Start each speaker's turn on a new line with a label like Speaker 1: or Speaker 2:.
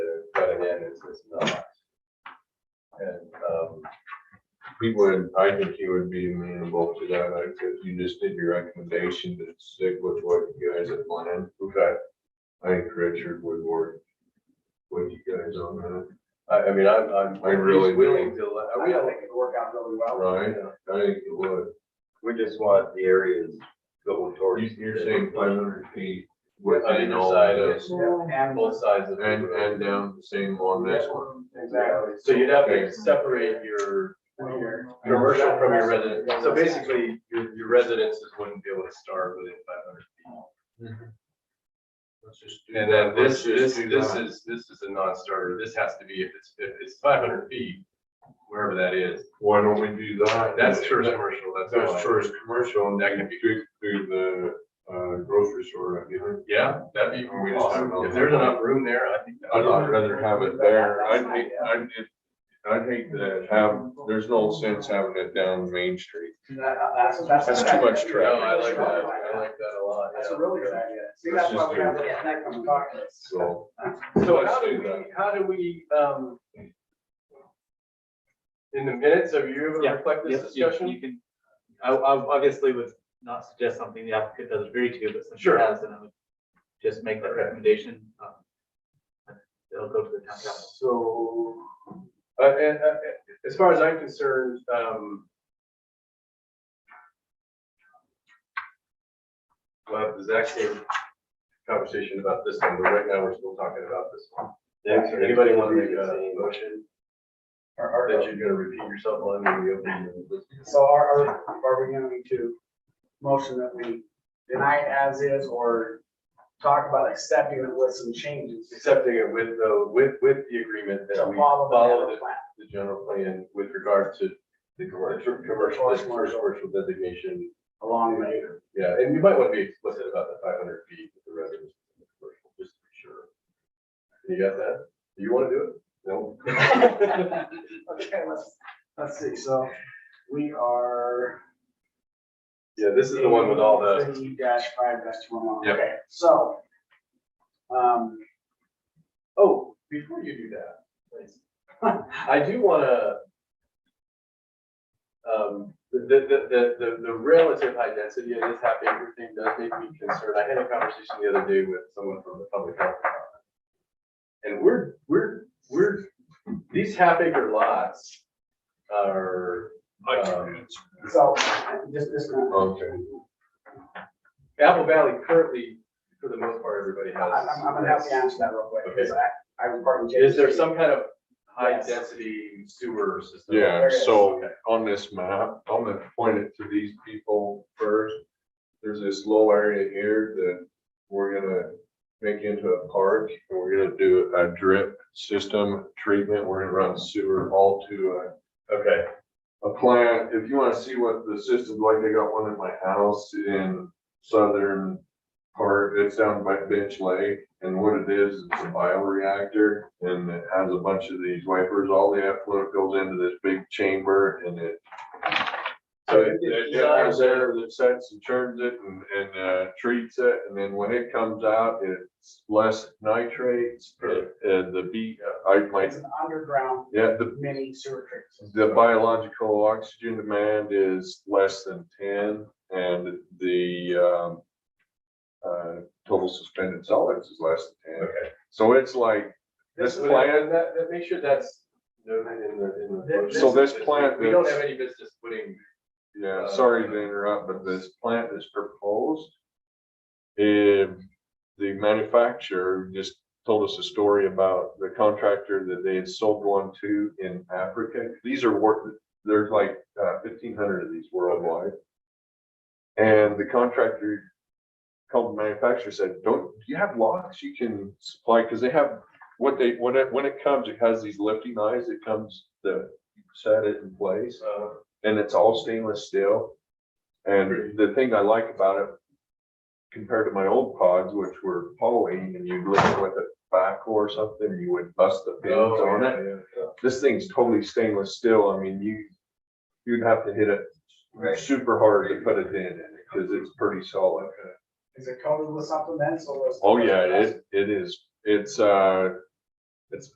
Speaker 1: it's, it's not. And, um, he would, I think he would be amenable to that, like, if you just did your recommendation to stick with what you guys had planned. Okay. I think Richard would work with you guys on that. I, I mean, I'm, I'm, I'm really willing to, let-
Speaker 2: I
Speaker 1: I mean, I
Speaker 2: think
Speaker 1: think,
Speaker 2: it'll work out really well.
Speaker 1: right, I think it would.
Speaker 3: We just want the areas going towards.
Speaker 1: You- You're saying five hundred feet
Speaker 3: On
Speaker 1: within
Speaker 3: either
Speaker 1: all
Speaker 3: side
Speaker 1: of
Speaker 3: of
Speaker 1: this,
Speaker 2: Yeah, And,
Speaker 3: Both sides of. the
Speaker 1: and,
Speaker 3: road.
Speaker 1: and down the same on this one.
Speaker 2: exactly.
Speaker 3: So you'd have to separate your commercial from your residence. So basically, your, your residences wouldn't be able to start within five hundred feet.
Speaker 1: Let's just do
Speaker 3: And then
Speaker 1: that.
Speaker 3: this,
Speaker 1: Let's
Speaker 3: this,
Speaker 1: just do
Speaker 3: this
Speaker 1: that.
Speaker 3: is, this is a non-starter. This has to be, if it's, if it's five hundred feet, wherever that is.
Speaker 1: Why don't we do that?
Speaker 3: That's tourist commercial, that's. all I-
Speaker 1: That's tourist commercial and
Speaker 3: That
Speaker 1: that
Speaker 3: can
Speaker 1: can be through, through the uh, grocery store, right behind.
Speaker 3: Yeah, that'd be
Speaker 1: We just
Speaker 3: awesome.
Speaker 1: have it on
Speaker 3: If
Speaker 1: that
Speaker 3: there's
Speaker 1: one.
Speaker 3: enough room there, I think. that-
Speaker 1: I'd I'd rather have it there. I'd hate, I'd, just- I'd hate to have, there's no sense having it down Main Street.
Speaker 2: That- That's, that's.
Speaker 1: That's too much
Speaker 3: No,
Speaker 1: traffic.
Speaker 3: I like that. I like that a lot.
Speaker 2: That's
Speaker 3: yeah.
Speaker 2: a really good idea. See, that's why we have to connect on targets.
Speaker 1: So
Speaker 3: So
Speaker 1: Let's
Speaker 3: how do
Speaker 1: do
Speaker 3: we,
Speaker 1: that.
Speaker 3: how do we, um, in the minutes, are you able to
Speaker 4: Yeah,
Speaker 3: reflect this
Speaker 4: Yes, you- You
Speaker 3: discussion?
Speaker 4: can, I, I obviously would not suggest something the applicant does agree to, but since she
Speaker 3: Sure.
Speaker 4: has, then I would just make that
Speaker 3: Okay.
Speaker 4: recommendation. um, and It'll go to the town council.
Speaker 3: So, uh, and, uh, as far as I'm concerned, um, we'll have the exact same conversation about this one, but right now we're still talking about this one. Anybody want to make a motion
Speaker 2: Are, are,
Speaker 3: that you're gonna repeat yourself on when we open the
Speaker 2: so are, are, are we going to motion that we deny it as is or talk about accepting it with some changes?
Speaker 3: accepting it with the, with, with the agreement
Speaker 2: To
Speaker 3: that we
Speaker 2: follow the
Speaker 3: follow
Speaker 2: general
Speaker 3: the,
Speaker 2: plan.
Speaker 3: the general plan with regard to the commercial, commercial, this first commercial designation.
Speaker 2: Along the way.
Speaker 3: Yeah, and you might want to be explicit about the five hundred feet with the residence, and the commercial, just to be sure. You got that? Do you want to do it? No?
Speaker 2: Okay, let's, let's see, so we are.
Speaker 3: Yeah, this is the one with all the,
Speaker 2: Fifty dash five dash two one one,
Speaker 3: Yep.
Speaker 2: okay, so. Um,
Speaker 3: oh, before you do that, please. I do want to um, the, the, the, the, the relative high density of this half acre thing does make me concerned. I had a conversation the other day with someone from the public health department. And we're, we're, we're, these half acre lots are um,
Speaker 2: so, just, just. gonna-
Speaker 1: Okay.
Speaker 3: Apple Valley currently, for the most part, everybody
Speaker 2: I'm,
Speaker 3: has.
Speaker 2: I'm I'm gonna help you answer that real quick, because I, I was part of.
Speaker 3: Is there some kind of high
Speaker 2: Yes.
Speaker 3: density sewer system?
Speaker 1: Yeah, so
Speaker 3: Okay.
Speaker 1: on this map, I'm gonna point it to these people first. There's this low area here that we're gonna make into a park, and we're gonna do a drip system treatment. We're gonna run sewer all to
Speaker 3: Okay.
Speaker 1: a, a plant. If you wanna see what the system's like, I got one in my house in southern part, it's down by Bench Lake, and what it is, it's a bioreactor, and it has a bunch of these wipers, all the effluent goes into this big chamber, and it
Speaker 3: So
Speaker 1: so
Speaker 3: it-
Speaker 1: it,
Speaker 3: it's
Speaker 1: it
Speaker 3: designed
Speaker 1: has air that sets and turns it and, and, uh, treats it, and then when it comes out, it's less nitrates, and, and the B, I might,
Speaker 2: It's an underground
Speaker 1: yeah, the,
Speaker 2: mini sewer treatment. system.
Speaker 1: the biological oxygen demand is less than ten, and the, um, uh, total suspended solids is less than ten.
Speaker 3: Okay.
Speaker 1: So it's like, this
Speaker 3: Well, that-
Speaker 1: plant,
Speaker 3: That, that, make sure that's noted in the, in the.
Speaker 2: Th-
Speaker 1: So this plant
Speaker 3: We don't
Speaker 1: that's-
Speaker 3: have any business putting,
Speaker 1: yeah, sorry to interrupt, but this plant is proposed. If the manufacturer just told us a story about the contractor that they had sold one to in Africa. These are worth, there's like uh, fifteen hundred of these worldwide. And the contractor called the manufacturer, said, don't, do you have locks you can supply? Because they have, what they, when it, when it comes, it has these lifting eyes, it comes, the, set it in place
Speaker 3: uh,
Speaker 1: and it's all stainless steel. And the thing I like about it compared to my old pods, which were poly and you'd lift it with a backhoe or something, you would bust the pins
Speaker 3: oh,
Speaker 1: on
Speaker 3: yeah,
Speaker 1: it.
Speaker 3: yeah.
Speaker 1: This thing's totally stainless steel. I mean, you, you'd have to hit it
Speaker 2: Right.
Speaker 1: super hard to put it in because it's pretty solid.
Speaker 2: Is Oh, it coated with something then, so it's.
Speaker 1: Oh, yeah, it, it is. It's, uh,